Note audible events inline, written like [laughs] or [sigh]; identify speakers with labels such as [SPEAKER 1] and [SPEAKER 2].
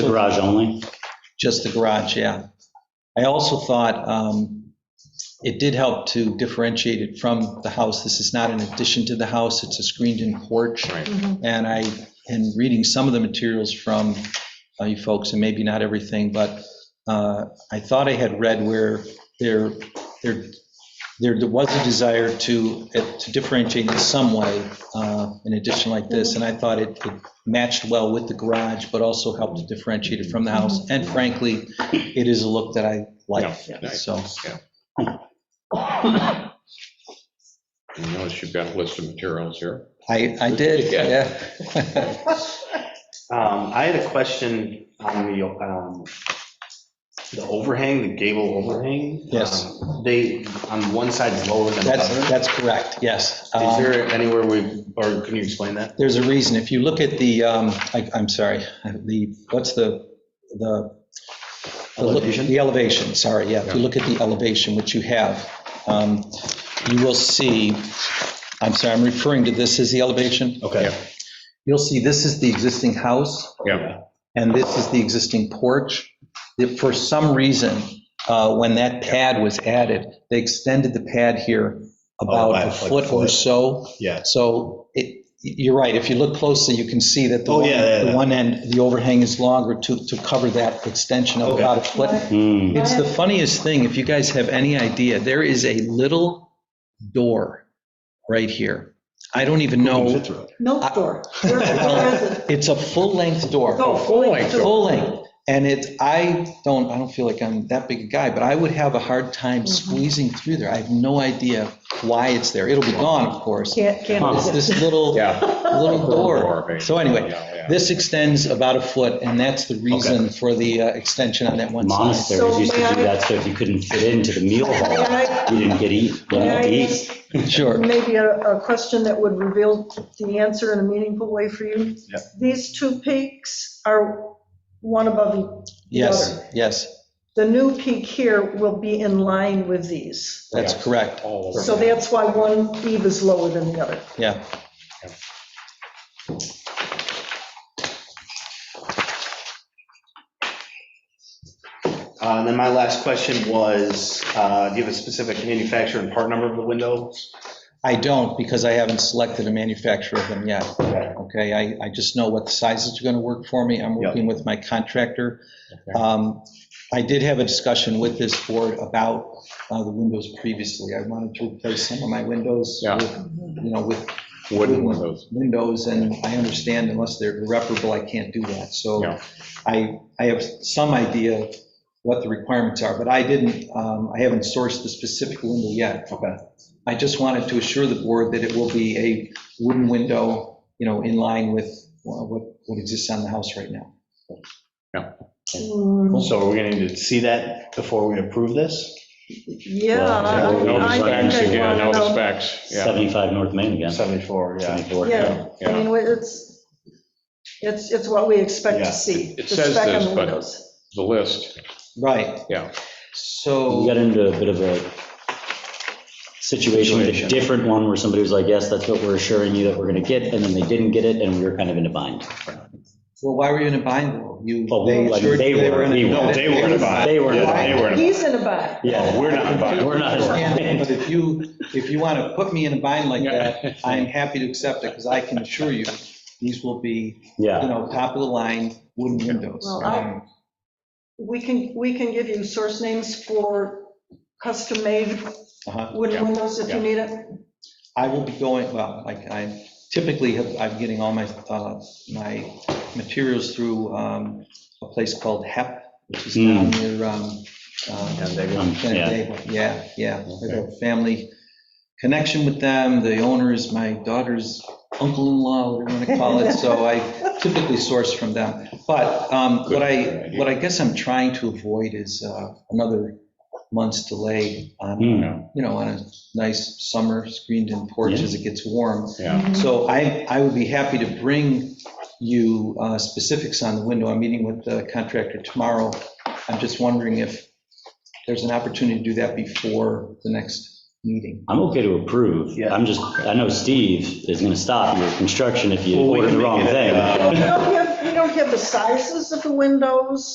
[SPEAKER 1] garage only?
[SPEAKER 2] just the garage, yeah. I also thought um, it did help to differentiate it from the house. This is not an addition to the house, it's a screened-in porch.
[SPEAKER 1] Right.
[SPEAKER 2] And I, in reading some of the materials from uh, you folks, and maybe not everything, but uh, I thought I had read where there, there, there was a desire to, uh, to differentiate in some way uh, an addition like this, and I thought it it matched well with the garage, but also helped to differentiate it from the house. And frankly, it is a look that I like,
[SPEAKER 1] Yeah,
[SPEAKER 2] so.
[SPEAKER 3] You notice you've got a list of materials here.
[SPEAKER 2] I, I did, yeah. [laughs]
[SPEAKER 4] Um, I had a question on the, um, the overhang, the gable overhang.
[SPEAKER 2] Yes.
[SPEAKER 4] Um, They, on one side is lower than the
[SPEAKER 2] That's,
[SPEAKER 4] other.
[SPEAKER 2] that's correct, yes.
[SPEAKER 4] Is
[SPEAKER 2] Um,
[SPEAKER 4] there anywhere we, or can you explain that?
[SPEAKER 2] There's a reason. If you look at the, um, I- I'm sorry, the, what's the, the. the look-
[SPEAKER 4] Elevation?
[SPEAKER 2] The elevation, sorry, yeah. If you look at the elevation, which you have, um, you will see, I'm sorry, I'm referring to this as the elevation.
[SPEAKER 4] Okay.
[SPEAKER 2] You'll see this is the existing house.
[SPEAKER 3] Yeah.
[SPEAKER 2] And this is the existing porch. If For some reason, uh, when that pad was added, they extended the pad here
[SPEAKER 4] Oh,
[SPEAKER 2] about
[SPEAKER 4] by
[SPEAKER 2] a
[SPEAKER 4] like
[SPEAKER 2] foot or
[SPEAKER 4] foot.
[SPEAKER 2] so.
[SPEAKER 4] Yeah.
[SPEAKER 2] So it, you're right, if you look closely, you can see that the
[SPEAKER 4] Oh,
[SPEAKER 2] one-
[SPEAKER 4] yeah, yeah,
[SPEAKER 2] the
[SPEAKER 4] yeah.
[SPEAKER 2] one end, the overhang is longer to, to cover that extension of
[SPEAKER 4] Okay.
[SPEAKER 2] about a foot.
[SPEAKER 1] Hmm,
[SPEAKER 2] It's the funniest thing, if you guys have any idea, there is a little door right here. I don't even know,
[SPEAKER 5] Milk door. Where- where is
[SPEAKER 2] [laughs]
[SPEAKER 5] it?
[SPEAKER 2] it's a full-length door.
[SPEAKER 5] Oh,
[SPEAKER 3] full-length
[SPEAKER 5] door.
[SPEAKER 2] Full length. And it's, I don't, I don't feel like I'm that big a guy, but I would have a hard time squeezing through there. I have no idea why it's there. It'll be gone, of course.
[SPEAKER 5] Can't, can't.
[SPEAKER 2] It's
[SPEAKER 5] [laughs]
[SPEAKER 2] this little,
[SPEAKER 3] Yeah.
[SPEAKER 2] little door.
[SPEAKER 3] maybe.
[SPEAKER 2] So anyway,
[SPEAKER 3] Yeah, yeah.
[SPEAKER 2] this extends about a foot, and that's the reason for the uh, extension on that one side.
[SPEAKER 1] Monasteries
[SPEAKER 5] So
[SPEAKER 1] used to
[SPEAKER 5] may I-
[SPEAKER 1] do that, so if you couldn't fit into the meal
[SPEAKER 5] May
[SPEAKER 1] hall,
[SPEAKER 2] [laughs]
[SPEAKER 5] I-
[SPEAKER 1] you didn't get eat, you
[SPEAKER 5] may
[SPEAKER 1] didn't
[SPEAKER 5] I
[SPEAKER 1] get to eat.
[SPEAKER 5] ask
[SPEAKER 2] Sure.
[SPEAKER 5] Maybe a, a question that would reveal the answer in a meaningful way for you.
[SPEAKER 4] Yeah.
[SPEAKER 5] These two peaks are one above the
[SPEAKER 2] Yes,
[SPEAKER 5] other.
[SPEAKER 2] yes,
[SPEAKER 5] The new peak here will be in line with these.
[SPEAKER 2] that's
[SPEAKER 3] Yeah.
[SPEAKER 2] correct.
[SPEAKER 3] All
[SPEAKER 5] So
[SPEAKER 3] over.
[SPEAKER 5] that's why one eve is lower than the other.
[SPEAKER 2] Yeah.
[SPEAKER 4] Uh, and then my last question was, uh, do you have a specific manufacturer and part number of the windows?
[SPEAKER 2] I don't, because I haven't selected a manufacturer of them yet. Okay, I, I just know what sizes are going to work for me. I'm
[SPEAKER 4] Yeah.
[SPEAKER 2] working with my contractor. Um, I did have a discussion with this board about uh, the windows previously. I wanted to replace some of my windows
[SPEAKER 3] Yeah.
[SPEAKER 2] with, you know, with
[SPEAKER 3] Wooden windows.
[SPEAKER 2] windows, and I understand unless they're irreparable, I can't do that. So
[SPEAKER 3] Yeah.
[SPEAKER 2] I, I have some idea what the requirements are, but I didn't, um, I haven't sourced the specific window yet.
[SPEAKER 4] Okay.
[SPEAKER 2] I just wanted to assure the board that it will be a wooden window, you know, in line with uh, what, what exists on the house right now.
[SPEAKER 5] Hmm,
[SPEAKER 4] So are we gonna need to see that before we approve this?
[SPEAKER 5] Yeah. I-
[SPEAKER 1] Well,
[SPEAKER 3] Know the
[SPEAKER 5] Uh, I think
[SPEAKER 3] specs
[SPEAKER 5] I'd
[SPEAKER 3] again,
[SPEAKER 5] wanna
[SPEAKER 3] know the
[SPEAKER 5] know.
[SPEAKER 3] specs, yeah.
[SPEAKER 1] 75 North Main again.
[SPEAKER 4] 74, yeah.
[SPEAKER 1] 74.
[SPEAKER 5] Yeah, I
[SPEAKER 3] Yeah.
[SPEAKER 5] mean, it's, it's, it's what we expect
[SPEAKER 4] Yeah.
[SPEAKER 5] to see.
[SPEAKER 3] It
[SPEAKER 5] the
[SPEAKER 3] says
[SPEAKER 5] spec on
[SPEAKER 3] this,
[SPEAKER 5] the
[SPEAKER 3] but-
[SPEAKER 5] windows.
[SPEAKER 3] The list,
[SPEAKER 2] Right.
[SPEAKER 3] Yeah.
[SPEAKER 1] We
[SPEAKER 2] So,
[SPEAKER 1] got into a bit of a situation, a
[SPEAKER 3] Situation.
[SPEAKER 1] different one where somebody was like, yes, that's what we're assuring you that we're going to get, and then they didn't get it, and we were kind of in a bind.
[SPEAKER 2] well, why were you in a bind though? You,
[SPEAKER 1] Well,
[SPEAKER 2] they
[SPEAKER 1] like,
[SPEAKER 2] assured
[SPEAKER 1] they
[SPEAKER 2] you they
[SPEAKER 1] were,
[SPEAKER 2] were in a.
[SPEAKER 1] we were.
[SPEAKER 2] no,
[SPEAKER 4] They were in a bind.
[SPEAKER 1] They were in a
[SPEAKER 4] Yeah,
[SPEAKER 1] bind.
[SPEAKER 4] They were in a
[SPEAKER 5] He's in a bind.
[SPEAKER 1] Yeah,
[SPEAKER 4] We're not buying.
[SPEAKER 1] We're not.
[SPEAKER 2] understand, But if you, if you want to put me in a bind like
[SPEAKER 3] Yeah.
[SPEAKER 2] that, I am happy to accept it, because I can assure you, these will be, you
[SPEAKER 1] Yeah,
[SPEAKER 2] know, top of the line wooden windows.
[SPEAKER 5] Well, I-
[SPEAKER 2] Um,
[SPEAKER 5] We can, we can give you source names for custom-made
[SPEAKER 2] uh-huh.
[SPEAKER 5] wooden
[SPEAKER 3] Yeah,
[SPEAKER 5] windows if you
[SPEAKER 3] yeah.
[SPEAKER 5] need it.
[SPEAKER 2] I will be going, well, like, I typically have, I'm getting all my, uh, my materials through um, a place called HEP, which is down near, um, uh,
[SPEAKER 1] [laughs] um, yeah.
[SPEAKER 2] Canandaigua. Yeah, yeah. I have a family connection with them. The owner is my daughter's uncle-in-law, whatever you want to call it. So I typically source from them. But um, what I, what I guess I'm trying to avoid is uh, another month's delay on,
[SPEAKER 1] Hmm.
[SPEAKER 2] you know, on a nice summer screened-in porch as it gets warm.
[SPEAKER 3] yeah.
[SPEAKER 2] So I, I would be happy to bring you uh, specifics on the window. I'm meeting with the contractor tomorrow. I'm just wondering if there's an opportunity to do that before the next meeting.
[SPEAKER 1] I'm okay to approve.
[SPEAKER 4] Yeah.
[SPEAKER 1] I'm just, I know Steve is going to stop your construction if you
[SPEAKER 4] Well, we
[SPEAKER 1] order
[SPEAKER 4] can
[SPEAKER 1] the
[SPEAKER 4] make
[SPEAKER 1] wrong
[SPEAKER 4] it,
[SPEAKER 1] thing.
[SPEAKER 4] uh,
[SPEAKER 5] We'll give, we don't have the sizes of the windows.